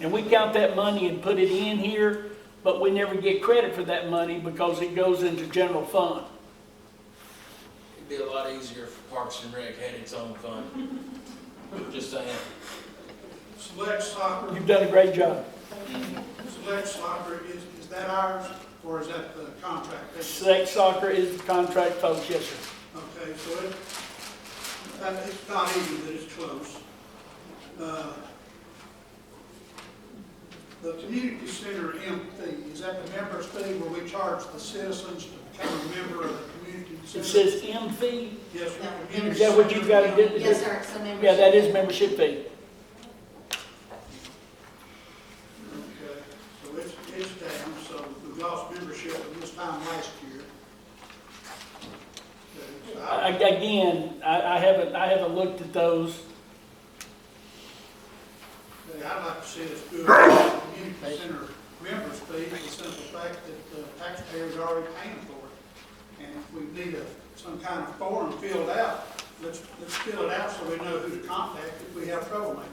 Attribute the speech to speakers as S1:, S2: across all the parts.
S1: And we count that money and put it in here, but we never get credit for that money because it goes into general fund.
S2: It'd be a lot easier if Parks and Rec had its own fund. Just saying.
S3: Select soccer,
S1: You've done a great job.
S3: select soccer, is, is that ours or is that the contract? basis?
S1: Select soccer is the contract folks, yes, sir.
S3: Okay, so it, that, it's not even that it's close. Uh, The community center M thing, is that the members thing where we charge the citizens to become a member of the community
S1: It
S3: center?
S1: says M fee,
S3: Yes,
S4: Yeah.
S3: the community
S1: Is that what
S3: center
S1: you gotta
S3: M.
S1: get?
S4: Yes, sir, it's a membership.
S1: yeah, that is membership fee.
S3: Okay, So it's, it's down, so we lost membership at this time last year. Okay, so I-
S1: I- Again, I, I haven't, I haven't looked at those.
S3: Hey, I'd like to see us do a community center members fee for the simple fact that the taxpayers are already paying for it. And if we need a, some kind of form filled out, let's, let's fill it out so we know who to contact if we have troublemakers.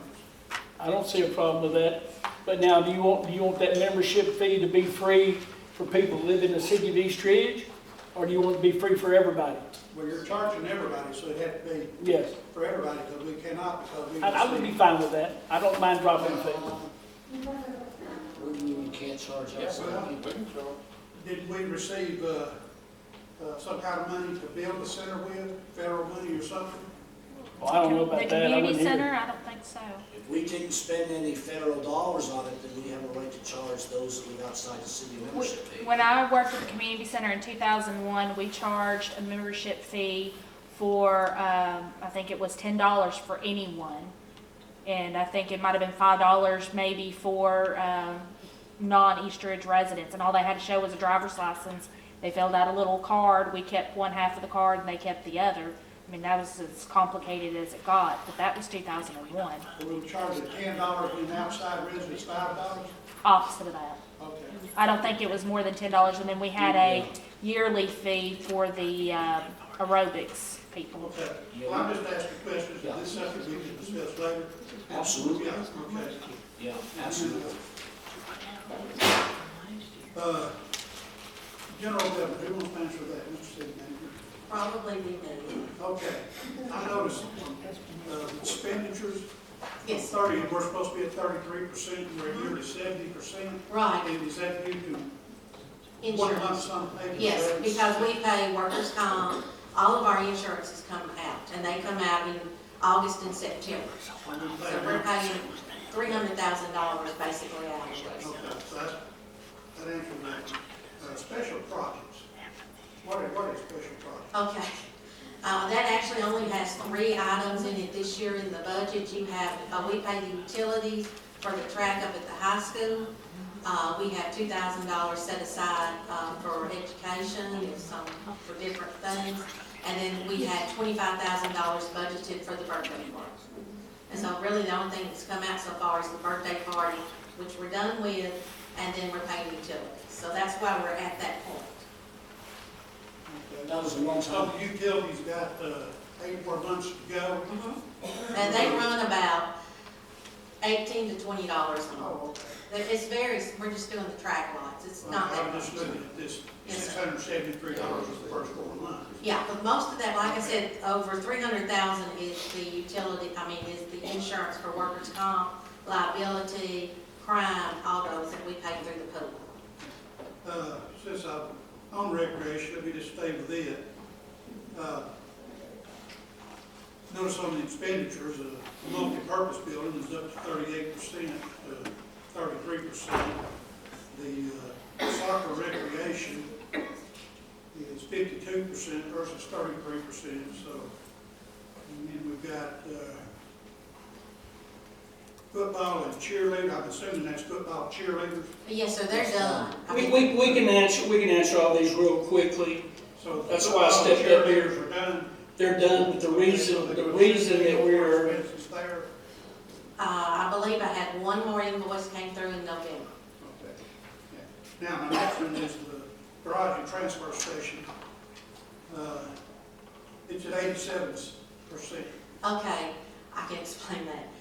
S1: I don't see a problem with that. But now, do you want, do you want that membership fee to be free for people that live in the city of East Ridge? Or do you want it to be free for everybody?
S3: Well, you're charging everybody, so it had to be
S1: Yes,
S3: for everybody, because we cannot, because we.
S1: I, I would be fine with that. I don't mind dropping the fee.
S5: What do you mean we can't charge
S3: Yes,
S5: outside?
S3: well, Did we receive, uh, uh, some kind of money to build the center with, federal money or something?
S1: Well, I don't know about
S6: The
S1: that. I
S6: community
S1: wouldn't hear.
S6: center, I don't think so.
S5: If we didn't spend any federal dollars on it, then we have a right to charge those that live outside the city membership fee.
S6: When I worked at the community center in 2001, we charged a membership fee for, um, I think it was $10 for anyone. And I think it might have been $5 maybe for um, non-Eastridge residents. And all they had to show was a driver's license. They filled out a little card. We kept one half of the card and they kept the other. I mean, that was as complicated as it got, but that was 2001,
S3: We'll charge the ten dollars and outside residents five dollars?
S6: opposite of that.
S3: Okay.
S6: I don't think it was more than ten dollars, and then we had a yearly fee for the um, aerobics people.
S3: Okay, well, I'm just asking questions, this is something we can discuss later.
S5: Absolutely,
S3: Yeah, okay.
S5: yeah, absolutely.
S3: Uh, General government, who wants to answer that, Mr. City Manager?
S4: Probably we do.
S3: Okay, I noticed, uh, expenditures,
S4: Yes,
S3: thirty, we're supposed to be at thirty-three percent, we're nearly seventy percent.
S4: right,
S3: And is that due to one lump
S4: insurance.
S3: sum payment?
S4: Yes, because we pay workers' comp, all of our insurances come out, and they come out in August and September.
S3: And we
S4: So
S3: pay
S4: we're
S3: one-
S4: paying three hundred thousand dollars basically out of those.
S3: Okay, so that, that answers that. Uh, special projects, what are, what are special projects?
S4: Okay. Uh, that actually only has three items in it this year in the budget. You have, uh, we pay the utilities for the track up at the high school. Uh, we have two thousand dollars set aside, uh, for education and some, for different things. And then we had twenty-five thousand dollars budgeted for the birthday party. And so really the only thing that's come out so far is the birthday party, which we're done with, and then we're paying utilities. So that's why we're at that point.
S3: Okay.
S5: That was a long
S3: So
S5: time.
S3: the utilities got uh, eight more months to go.
S4: And they run about eighteen to twenty dollars a month. It- It's very, we're just doing the track lots, it's not that
S3: I'm just
S4: much.
S3: looking at this,
S4: Yes,
S3: six
S4: sir.
S3: hundred seventy-three dollars is the first four months.
S4: Yeah, but most of that, like I said, over three hundred thousand is the utility, I mean, is the insurance for workers' comp, liability, crime, all those that we pay through the pool.
S3: Uh, Since I'm on recreation, let me just stay with it. Uh, Notice on the expenditures, uh, the multi-purpose building is up to thirty-eight percent, uh, thirty-three percent. The uh, soccer recreation is fifty-two percent versus thirty-three percent, so. And then we've got uh, football and cheerleader, I'm assuming that's football cheerleaders.
S4: But yes, so they're done. I
S7: We,
S4: mean,
S7: we, we can answer, we can answer all these real quickly.
S3: So
S7: That's why I stepped up here.
S3: Cheerleaders are done.
S7: They're done, but the reason, the reason that we're,
S3: Expenses there.
S4: Uh, I believe I had one more invoice came through in November.
S3: Okay. Yeah. Now, my next one is the garage and transfer station. Uh, It's at eighty-seven percent.
S4: Okay, I can explain that.